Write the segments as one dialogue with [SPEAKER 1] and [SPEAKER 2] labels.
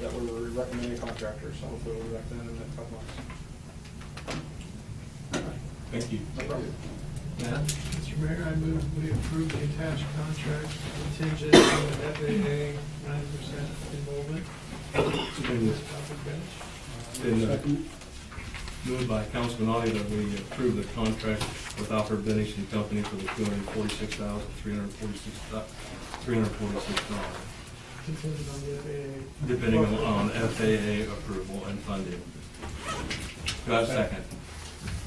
[SPEAKER 1] that we were recommending contractors, so hopefully we'll be back then in a couple months.
[SPEAKER 2] Thank you.
[SPEAKER 1] No problem.
[SPEAKER 2] Matt?
[SPEAKER 3] Mr. Mayor, I move we approve the attached contract contingent on FAA nine percent enrollment. Topic bench.
[SPEAKER 2] Been, uh, Moved by Councilman Audi that we approve the contract with Alfred Bennington and Company for the two hundred and forty-six thousand, three hundred and forty-six, three hundred and forty-six dollars,
[SPEAKER 3] Contingent on the FAA.
[SPEAKER 2] depending on FAA approval and funding. Do I have a second?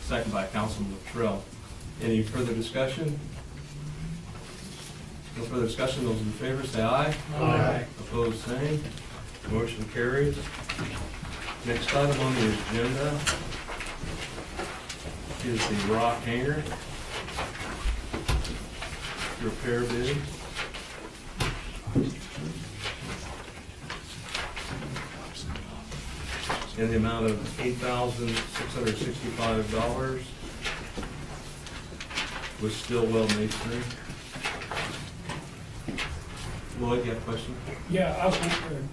[SPEAKER 2] Second by Councilman Latrell. Any further discussion? No further discussion, those in favor say aye.
[SPEAKER 3] Aye.
[SPEAKER 2] Opposed, same. Motion carries. Next item on the agenda is the rock hanger repair bid. In the amount of eight thousand six hundred sixty-five dollars with Stillwell Masonry. Lloyd, you have a question?
[SPEAKER 4] Yeah, I was wondering,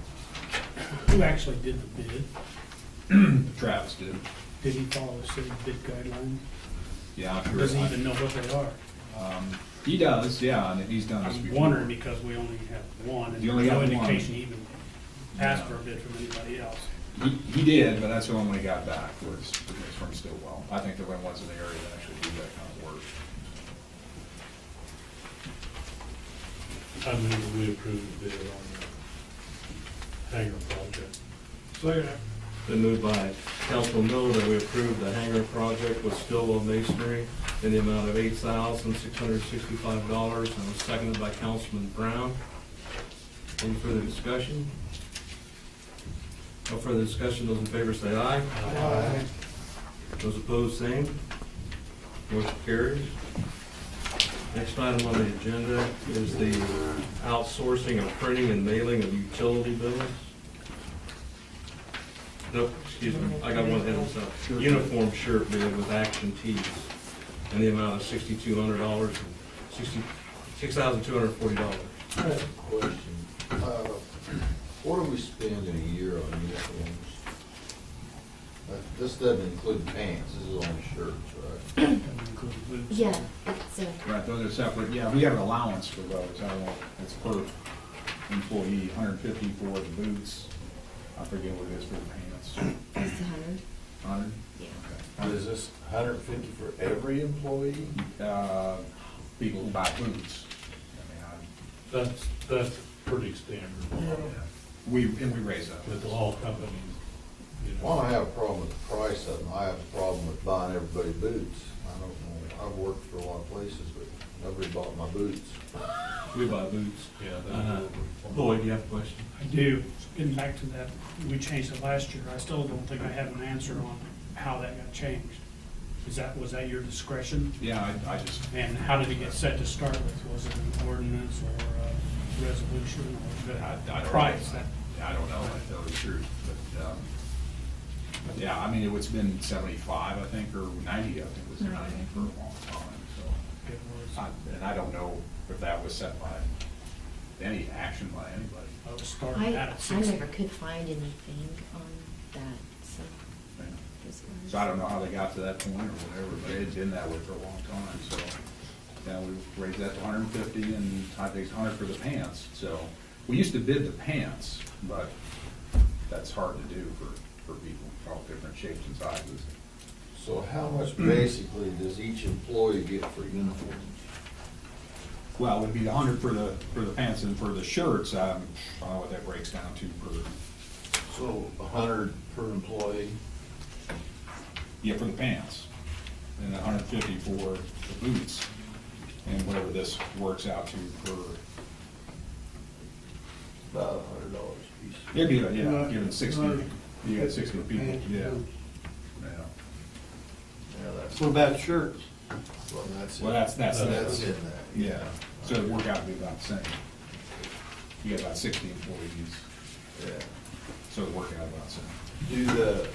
[SPEAKER 4] who actually did the bid?
[SPEAKER 5] Travis did.
[SPEAKER 4] Did he follow the city bid guidelines?
[SPEAKER 5] Yeah. I'm sure-
[SPEAKER 4] Does he even know what they are?
[SPEAKER 5] Um, He does, yeah, and he's done this
[SPEAKER 4] I'm
[SPEAKER 5] before.
[SPEAKER 4] wondering because we only have one, and
[SPEAKER 5] You
[SPEAKER 4] there's
[SPEAKER 5] only
[SPEAKER 4] no
[SPEAKER 5] have one.
[SPEAKER 4] indication he even asked for a bid from anybody else.
[SPEAKER 5] He, he did, but that's the one we got back was, was from Stillwell. I think they're the ones in the area that actually do that kind of work.
[SPEAKER 6] I move we approve the bid on the hangar project.
[SPEAKER 3] Second.
[SPEAKER 2] Been moved by Councilman Miller that we approve the hangar project with Stillwell Masonry in the amount of eight thousand six hundred sixty-five dollars, and was seconded by Councilman Brown. Any further discussion? No further discussion, those in favor say aye.
[SPEAKER 3] Aye.
[SPEAKER 2] Those opposed, same. Motion carries. Next item on the agenda is the uh, outsourcing of printing and mailing of utility bills. Nope, excuse me, I got one ahead of myself. Uniform shirt bid with action tees in the amount of sixty-two hundred dollars, sixty, six thousand two hundred forty dollars.
[SPEAKER 7] Question. Uh, What do we spend in a year on uniforms? Uh, This doesn't include pants, this is only shirts, right?
[SPEAKER 4] Including boots.
[SPEAKER 8] Yeah, it's uh, a,
[SPEAKER 5] Right, those are separate, yeah, we have an allowance for those, I don't, it's per employee, hundred fifty for the boots. I forget what it is for the pants,
[SPEAKER 8] it's a hundred,
[SPEAKER 5] hundred?
[SPEAKER 8] yeah.
[SPEAKER 7] Is this hundred fifty for every employee?
[SPEAKER 5] Uh, people who buy boots. I mean,
[SPEAKER 6] That's, that's pretty standard
[SPEAKER 5] I- We, and we raise that.
[SPEAKER 6] with all companies, you
[SPEAKER 7] Well,
[SPEAKER 6] know.
[SPEAKER 7] I don't have a problem with the price of them, I have a problem with buying everybody boots. I don't know, I've worked for a lot of places, but nobody bought my boots.
[SPEAKER 2] We buy boots.
[SPEAKER 6] Yeah,
[SPEAKER 2] Uh-huh.
[SPEAKER 6] that's.
[SPEAKER 2] Lloyd, do you have a question?
[SPEAKER 4] I do, getting back to that, we changed it last year, I still don't think I have an answer on how that got changed. Is that, was that your discretion?
[SPEAKER 5] Yeah, I, I just,
[SPEAKER 4] And how did it get set to start with? Was it an ordinance or a resolution or
[SPEAKER 5] I- I don't
[SPEAKER 4] the
[SPEAKER 5] know.
[SPEAKER 4] price? That-
[SPEAKER 5] I don't know, I tell you the truth, but, um, but yeah, I mean, it was been seventy-five, I think, or ninety, I think, it was ninety for a long time, so.
[SPEAKER 4] It was,
[SPEAKER 5] I- And I don't know if that was set by any action by anybody.
[SPEAKER 4] I was starting that
[SPEAKER 8] I,
[SPEAKER 4] uh, at
[SPEAKER 8] I
[SPEAKER 4] six.
[SPEAKER 8] never could find anything on that, so.
[SPEAKER 5] you know.
[SPEAKER 8] it was-
[SPEAKER 5] So I don't know how they got to that point or whatever, but it's been that way for a long time, so. Yeah, we raised that to hundred and fifty and I think it's hundred for the pants, so. We used to bid the pants, but that's hard to do for, for people, all different shapes and sizes.
[SPEAKER 7] So how much basically does each employee get for uniforms?
[SPEAKER 5] Well, it'd be the hundred for the, for the pants and for the shirts, um, I don't know what that breaks down to per,
[SPEAKER 7] So a hundred per employee?
[SPEAKER 5] yeah, for the pants. And a hundred and fifty for the boots and whatever this works out to per,
[SPEAKER 7] About a hundred dollars a piece.
[SPEAKER 5] Yeah, give it,
[SPEAKER 3] Not-
[SPEAKER 5] yeah, give it sixty,
[SPEAKER 3] not-
[SPEAKER 5] you got sixty people, yeah.
[SPEAKER 7] Yeah, that's,
[SPEAKER 9] What about shirts?
[SPEAKER 7] well, that's it.
[SPEAKER 5] Well, that's, that's,
[SPEAKER 7] That's
[SPEAKER 5] that's,
[SPEAKER 7] in that.
[SPEAKER 5] yeah, so it'd work out to be about the same. You got about sixty employees,
[SPEAKER 7] Yeah.
[SPEAKER 5] so it'd work out about the same.
[SPEAKER 7] Do the,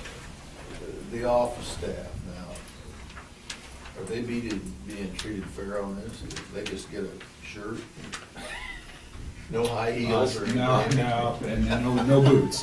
[SPEAKER 7] the office staff now, are they being, being treated fair on this? They just get a shirt? No high heels or anything?
[SPEAKER 5] No, no, and no, no boots,